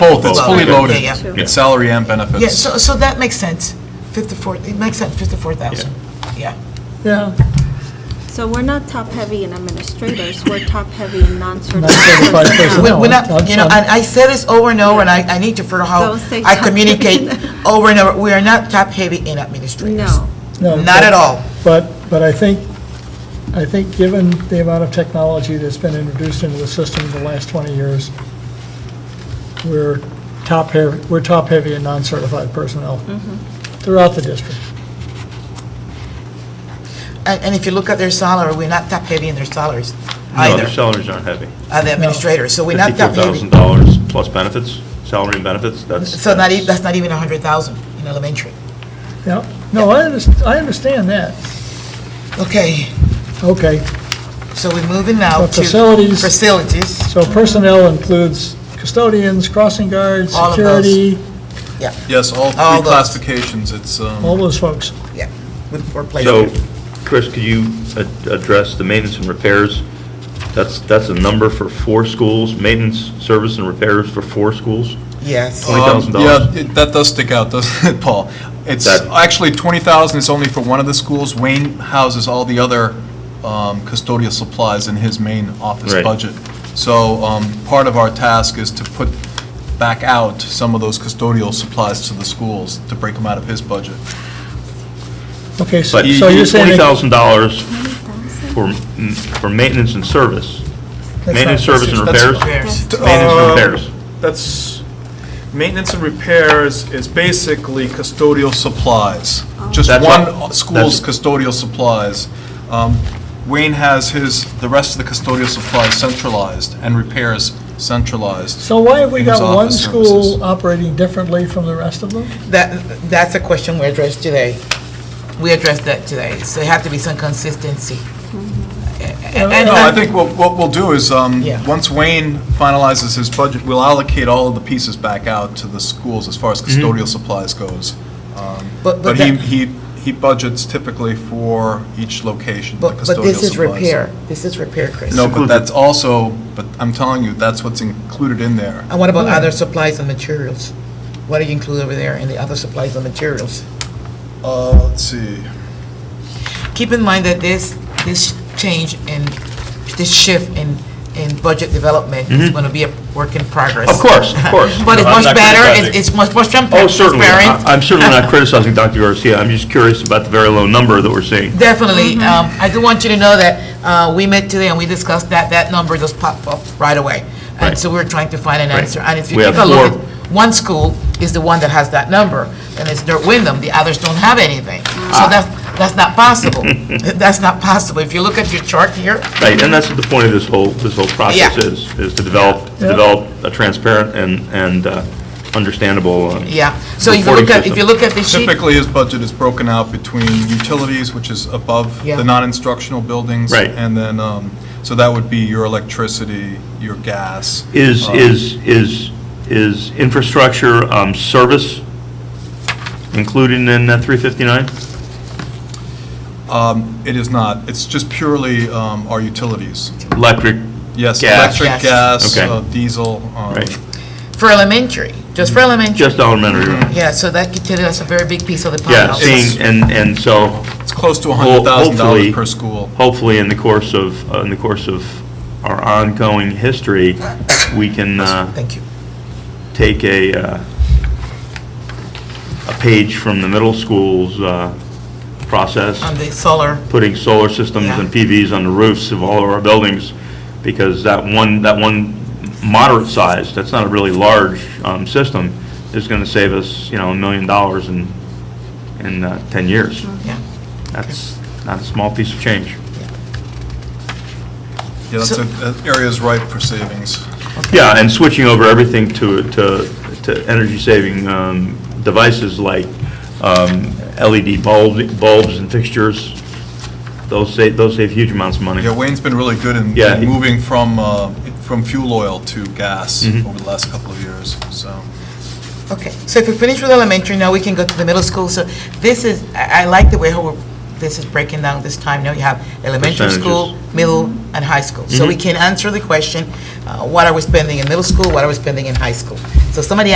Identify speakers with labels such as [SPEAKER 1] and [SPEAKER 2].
[SPEAKER 1] Both, it's fully
[SPEAKER 2] Both.
[SPEAKER 1] loaded.
[SPEAKER 2] Yeah, yeah.
[SPEAKER 1] It's salary and benefits.
[SPEAKER 2] Yeah, so, so that makes sense, 54, it makes sense, 54,000, yeah.
[SPEAKER 3] Yeah,
[SPEAKER 4] So we're not top-heavy in administrators, we're top-heavy in non-certified.
[SPEAKER 3] non-certified
[SPEAKER 2] We-
[SPEAKER 3] personnel.
[SPEAKER 2] We're not, you know,
[SPEAKER 3] I'm-
[SPEAKER 2] and I said this over and over, and I, I need to figure out how
[SPEAKER 4] Don't say
[SPEAKER 2] I
[SPEAKER 4] top
[SPEAKER 2] communicate
[SPEAKER 4] heavy.
[SPEAKER 2] over and over, we are not top-heavy in administrators.
[SPEAKER 4] No.
[SPEAKER 3] no,
[SPEAKER 2] Not at all.
[SPEAKER 3] But, but I think, I think given the amount of technology that's been introduced into the system in the last 20 years, we're top heavy, we're top heavy in non-certified personnel throughout the district.
[SPEAKER 2] And, and if you look at their salary, we're not top-heavy in their salaries
[SPEAKER 5] No, their
[SPEAKER 2] either,
[SPEAKER 5] salaries aren't heavy.
[SPEAKER 2] of the administrators, so we're not top-heavy.
[SPEAKER 5] $54,000 plus benefits, salary and benefits, that's.
[SPEAKER 2] So not, e- that's not even 100,000 in elementary.
[SPEAKER 3] Yeah, no, I understand, I understand that.
[SPEAKER 2] Okay,
[SPEAKER 3] Okay,
[SPEAKER 2] so we're moving now
[SPEAKER 3] So
[SPEAKER 2] to.
[SPEAKER 3] facilities-
[SPEAKER 2] Facilities,
[SPEAKER 3] so personnel includes custodians, crossing guards,
[SPEAKER 2] All of those.
[SPEAKER 3] security,
[SPEAKER 2] yeah,
[SPEAKER 1] Yes, all
[SPEAKER 2] All
[SPEAKER 1] three
[SPEAKER 2] those.
[SPEAKER 1] classifications, it's, um,
[SPEAKER 3] all those folks.
[SPEAKER 2] yeah, with, or
[SPEAKER 5] So,
[SPEAKER 2] placement.
[SPEAKER 5] Chris, could you a- address the maintenance and repairs? That's, that's a number for four schools, maintenance, service, and repairs for four schools?
[SPEAKER 2] Yes.
[SPEAKER 5] Twenty thousand
[SPEAKER 1] Um,
[SPEAKER 5] dollars.
[SPEAKER 1] Yeah, it- that does stick out, doesn't it, Paul? It's,
[SPEAKER 5] That-
[SPEAKER 1] actually, 20,000 is only for one of the schools. Wayne houses all the other um, custodial supplies in his main office
[SPEAKER 5] Right.
[SPEAKER 1] budget. So um, part of our task is to put back out some of those custodial supplies to the schools, to break them out of his budget.
[SPEAKER 3] Okay, so
[SPEAKER 5] But
[SPEAKER 3] so you're saying. that-
[SPEAKER 5] $20,000 for, m- for maintenance and service.
[SPEAKER 3] that's
[SPEAKER 5] Maintenance,
[SPEAKER 3] not-
[SPEAKER 5] service, and
[SPEAKER 1] That's- uh,
[SPEAKER 5] repairs?
[SPEAKER 2] Repairs.
[SPEAKER 5] Maintenance and repairs.
[SPEAKER 1] That's, maintenance and repairs is basically custodial supplies,
[SPEAKER 2] Oh.
[SPEAKER 1] just
[SPEAKER 5] That's
[SPEAKER 1] one
[SPEAKER 5] what-
[SPEAKER 1] school's
[SPEAKER 5] that's-
[SPEAKER 1] custodial supplies. Um, Wayne has his, the rest of the custodial supplies centralized and repairs centralized.
[SPEAKER 3] So why have we
[SPEAKER 1] in his
[SPEAKER 3] got one
[SPEAKER 1] office services.
[SPEAKER 3] school operating differently from the rest of them?
[SPEAKER 2] That, that's a question we addressed today. We addressed that today, so it have to be some consistency. And- and-
[SPEAKER 1] No, I think what, what we'll do is, um,
[SPEAKER 2] Yeah.
[SPEAKER 1] once Wayne finalizes his budget, we'll allocate all of the pieces back out to the schools as far as custodial supplies goes. Um,
[SPEAKER 2] Mm-hmm. But- but
[SPEAKER 1] But he,
[SPEAKER 2] that-
[SPEAKER 1] he, he budgets typically for each location, the
[SPEAKER 2] But,
[SPEAKER 1] custodial supplies.
[SPEAKER 2] but this is repair, this is repair, Chris.
[SPEAKER 1] No, but that's also, but I'm telling you, that's what's included in there.
[SPEAKER 2] And what about other supplies and materials? What do you include over there in the other supplies and materials?
[SPEAKER 1] Uh, let's see.
[SPEAKER 2] Keep in mind that this, this change in, this shift in, in budget development is going to be a work in progress.
[SPEAKER 5] Mm-hmm. Of course, of course.
[SPEAKER 2] But it's
[SPEAKER 5] I'm
[SPEAKER 2] much
[SPEAKER 5] not
[SPEAKER 2] better,
[SPEAKER 5] criticizing.
[SPEAKER 2] it's it's much more transparent.
[SPEAKER 5] Oh, certainly. I- I'm certainly not criticizing Dr. Garcia. I'm just curious about the very low number that we're seeing.
[SPEAKER 2] Definitely.
[SPEAKER 5] Mm-hmm.
[SPEAKER 2] Um, I do want you to know that uh, we met today and we discussed that, that number just popped up right away. And
[SPEAKER 5] Right.
[SPEAKER 2] so we're trying to find an
[SPEAKER 5] Right.
[SPEAKER 2] answer. And if you
[SPEAKER 5] We
[SPEAKER 2] take a
[SPEAKER 5] have
[SPEAKER 2] look,
[SPEAKER 5] four-
[SPEAKER 2] at one school is the one that has that number, and it's North Wyndham, the others don't have anything.
[SPEAKER 5] Ah.
[SPEAKER 2] So that's, that's not possible. That's not possible. If you look at your chart here,
[SPEAKER 5] Right, and that's what the point of this whole, this whole process
[SPEAKER 2] Yeah.
[SPEAKER 5] is, is to develop, to
[SPEAKER 3] Yeah.
[SPEAKER 5] develop a transparent and, and uh, understandable. uh,
[SPEAKER 2] yeah. So if you look
[SPEAKER 5] Reporting
[SPEAKER 2] at, if you
[SPEAKER 5] system.
[SPEAKER 2] look at the sheet,
[SPEAKER 1] Typically, his budget is broken out between utilities, which is above
[SPEAKER 2] Yeah.
[SPEAKER 1] the non-instructional buildings.
[SPEAKER 5] Right.
[SPEAKER 1] And then, um, so that would be your electricity, your gas.
[SPEAKER 5] Is,
[SPEAKER 1] um,
[SPEAKER 5] is, is, is infrastructure um, service included in that 359?
[SPEAKER 1] It is not. It's just purely um, our utilities.
[SPEAKER 5] Electric?
[SPEAKER 1] Yes,
[SPEAKER 5] Gas.
[SPEAKER 1] electric,
[SPEAKER 2] Yes.
[SPEAKER 1] gas,
[SPEAKER 5] Okay.
[SPEAKER 1] uh, diesel. um,
[SPEAKER 5] Right,
[SPEAKER 2] for elementary, just for elementary,
[SPEAKER 5] just elementary, right?
[SPEAKER 2] yeah, so that could tell us a very big piece of the pie.
[SPEAKER 5] Yeah,
[SPEAKER 2] also.
[SPEAKER 5] seeing, and, and so
[SPEAKER 1] It's close to
[SPEAKER 5] Well, hopefully-
[SPEAKER 1] $100,000 per school.
[SPEAKER 5] hopefully in the course of, uh, in the course of our ongoing history, we can, uh,
[SPEAKER 2] Thank you.
[SPEAKER 5] take a, uh, a page from the middle school's uh, process,
[SPEAKER 2] On the solar,
[SPEAKER 5] putting solar systems and PVs on the roofs of all of our buildings, because that one, that one moderate size, that's not a really large um, system, is going to save us, you know, a million dollars in, in uh, 10 years.
[SPEAKER 2] yeah.
[SPEAKER 5] That's not a small piece of change.
[SPEAKER 1] Yeah, that's
[SPEAKER 2] So-
[SPEAKER 1] a- that area is ripe for savings.
[SPEAKER 5] Yeah, and switching over everything to, to, to energy-saving um, devices like um, LED bulbs, bulbs and fixtures, those save, those save huge amounts of money.
[SPEAKER 1] Yeah, Wayne's been really good in
[SPEAKER 5] Yeah, he-
[SPEAKER 1] moving from, uh, from fuel oil to gas
[SPEAKER 5] Mm-hmm.
[SPEAKER 1] over the last couple of years, so.
[SPEAKER 2] Okay, so if we finish with elementary, now we can go to the middle school. So this is, I I like the way how we're this is breaking down this time. Now you have elementary school,
[SPEAKER 5] Percentages.
[SPEAKER 2] middle, and high school. So we can answer the question, uh, what are we spending in middle school, what are we spending in high school? So somebody